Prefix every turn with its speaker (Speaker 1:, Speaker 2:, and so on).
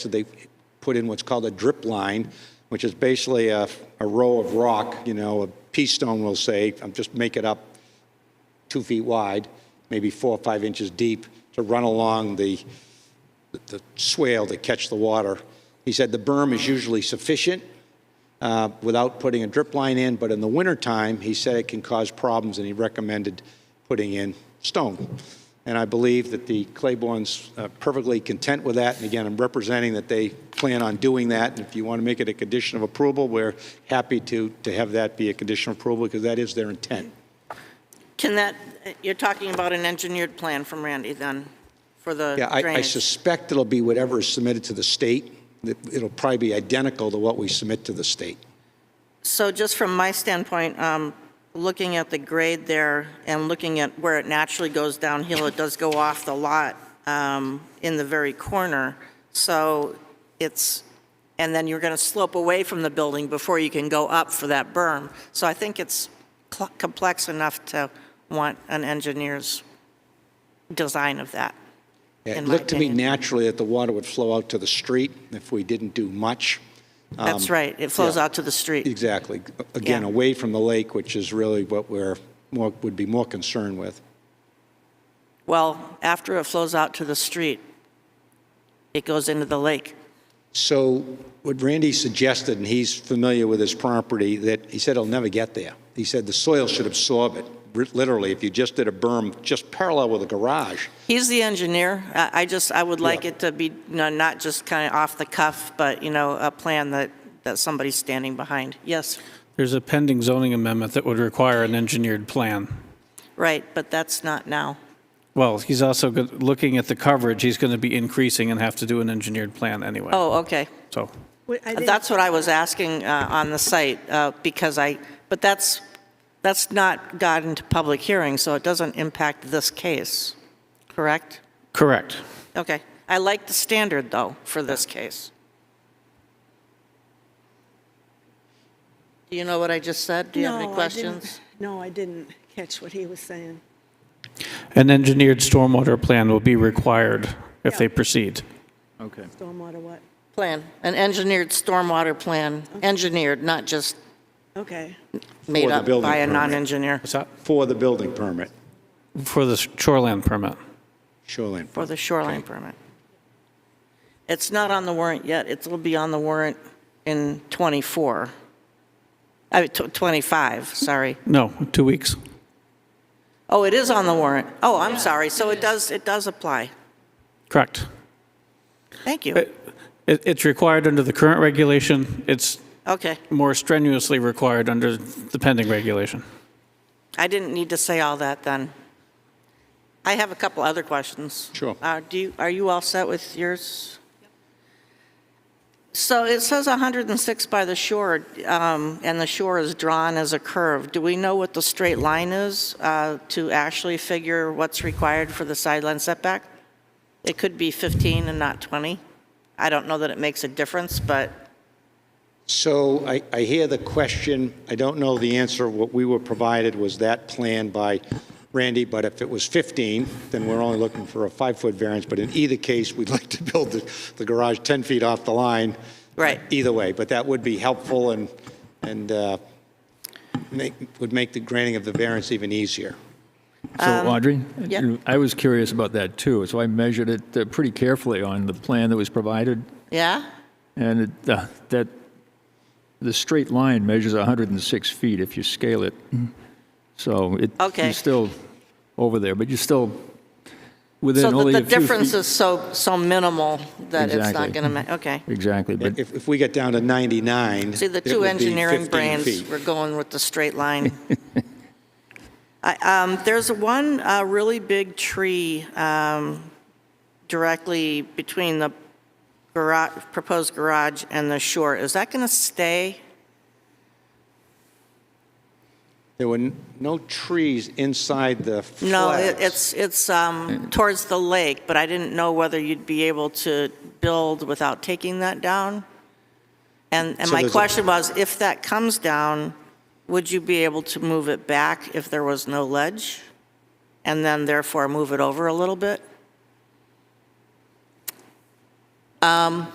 Speaker 1: So they put in what's called a drip line, which is basically a, a row of rock, you know, a pea stone, we'll say, I'm just make it up, two feet wide, maybe four or five inches deep, to run along the, the swale to catch the water. He said the berm is usually sufficient uh, without putting a drip line in, but in the wintertime, he said it can cause problems, and he recommended putting in stone. And I believe that the Claiborne's uh, perfectly content with that, and again, I'm representing that they plan on doing that, and if you want to make it a condition of approval, we're happy to, to have that be a condition of approval, because that is their intent.
Speaker 2: Can that, you're talking about an engineered plan from Randy then, for the
Speaker 1: Yeah, I- I
Speaker 2: drainage?
Speaker 1: suspect it'll be whatever is submitted to the state. That It'll probably be identical to what we submit to the state.
Speaker 2: So just from my standpoint, um, looking at the grade there and looking at where it naturally goes downhill, it does go off the lot um, in the very corner. So it's, and then you're going to slope away from the building before you can go up for that berm. So I think it's cl- complex enough to want an engineer's design of that.
Speaker 1: It
Speaker 2: in my
Speaker 1: looked to me
Speaker 2: opinion.
Speaker 1: naturally that the water would flow out to the street if we didn't do much.
Speaker 2: That's right, it flows
Speaker 1: Um, yeah.
Speaker 2: out to the street.
Speaker 1: Exactly. Again,
Speaker 2: Yeah.
Speaker 1: away from the lake, which is really what we're, more would be more concerned with.
Speaker 2: Well, after it flows out to the street, it goes into the lake.
Speaker 1: So what Randy suggested, and he's familiar with his property, that he said it'll never get there. He said the soil should absorb it, r- literally, if you just did a berm just parallel with a garage.
Speaker 2: He's the engineer. I I just, I would like
Speaker 1: Yeah.
Speaker 2: it to be, you know, not just kind of off the cuff, but, you know, a plan that, that somebody's standing behind. Yes,
Speaker 3: There's a pending zoning amendment that would require an engineered plan.
Speaker 2: right, but that's not now.
Speaker 3: Well, he's also, go- looking at the coverage, he's going to be increasing and have to do an engineered plan anyway,
Speaker 2: Oh, okay. Uh,
Speaker 3: so.
Speaker 4: Wait, I didn't-
Speaker 2: That's what I was asking uh, on the site, uh, because I, but that's, that's not got into public hearing, so it doesn't impact this case, correct?
Speaker 3: Correct.
Speaker 2: Okay. I like the standard, though, for this case. Do you know what I just said? Do you have
Speaker 4: No,
Speaker 2: any
Speaker 4: I
Speaker 2: questions?
Speaker 4: didn't- No, I didn't catch what he was saying.
Speaker 3: An engineered stormwater plan will be required if they
Speaker 4: Yeah.
Speaker 3: proceed.
Speaker 5: Okay.
Speaker 4: Stormwater what?
Speaker 2: Plan, an engineered stormwater plan, engineered, not just
Speaker 4: Okay,
Speaker 2: made
Speaker 1: For the
Speaker 2: up
Speaker 1: building
Speaker 2: by a
Speaker 1: permit.
Speaker 2: non-engineer
Speaker 3: What's that?
Speaker 1: For the building permit,
Speaker 3: For the shoreland permit.
Speaker 1: shoreline.
Speaker 2: for the shoreline permit. It's not on the warrant yet. It'll be on the warrant in 24. I mean, tw- 25, sorry.
Speaker 3: No, two weeks.
Speaker 2: Oh, it is on the warrant. Oh, I'm sorry. So it does, it does apply.
Speaker 3: Correct.
Speaker 2: Thank you.
Speaker 3: It, it- it's required under the current regulation. It's
Speaker 2: Okay.
Speaker 3: more strenuously required under the pending regulation.
Speaker 2: I didn't need to say all that then. I have a couple other questions.
Speaker 1: Sure.
Speaker 2: Uh, Do you, are you all set with yours? So it says 106 by the shore, um, and the shore is drawn as a curve. Do we know what the straight line is uh, to actually figure what's required for the sideline setback? It could be 15 and not 20. I don't know that it makes a difference, but
Speaker 1: So I, I hear the question, I don't know the answer, what we were provided was that plan by Randy, but if it was 15, then we're only looking for a five-foot variance, but in either case, we'd like to build the, the garage 10 feet off the line.
Speaker 2: Right.
Speaker 1: Either way, but that would be helpful and, and uh, make, would make the granting of the variance even easier.
Speaker 5: So Audrey?
Speaker 2: Um, yeah.
Speaker 5: I was curious about that too, so I measured it uh, pretty carefully on the plan that was provided,
Speaker 2: yeah?
Speaker 5: and it, uh, that, the straight line measures 106 feet if you scale it. So it,
Speaker 2: Okay.
Speaker 5: you're still over there, but you're still within
Speaker 2: So
Speaker 5: only
Speaker 2: that
Speaker 5: a
Speaker 2: the
Speaker 5: few
Speaker 2: difference
Speaker 5: feet-
Speaker 2: is so, so minimal that it's not
Speaker 5: Exactly.
Speaker 2: going to ma, okay.
Speaker 5: Exactly, but
Speaker 1: If, if we get down to 99,
Speaker 2: See, the
Speaker 1: it
Speaker 2: two
Speaker 1: would be
Speaker 2: engineering
Speaker 1: 15
Speaker 2: brains
Speaker 1: feet.
Speaker 2: were going with the straight line. I- um, There's one uh, really big tree um, directly between the garage, proposed garage and the shore. Is that going to stay?
Speaker 1: There were n- no trees inside the flats.
Speaker 2: No, it- it's, it's um, towards the lake, but I didn't know whether you'd be able to build without taking that down. And, and
Speaker 1: So
Speaker 2: my
Speaker 1: there's a-
Speaker 2: question was, if that comes down, would you be able to move it back if there was no ledge? And then therefore move it over a little bit? Um,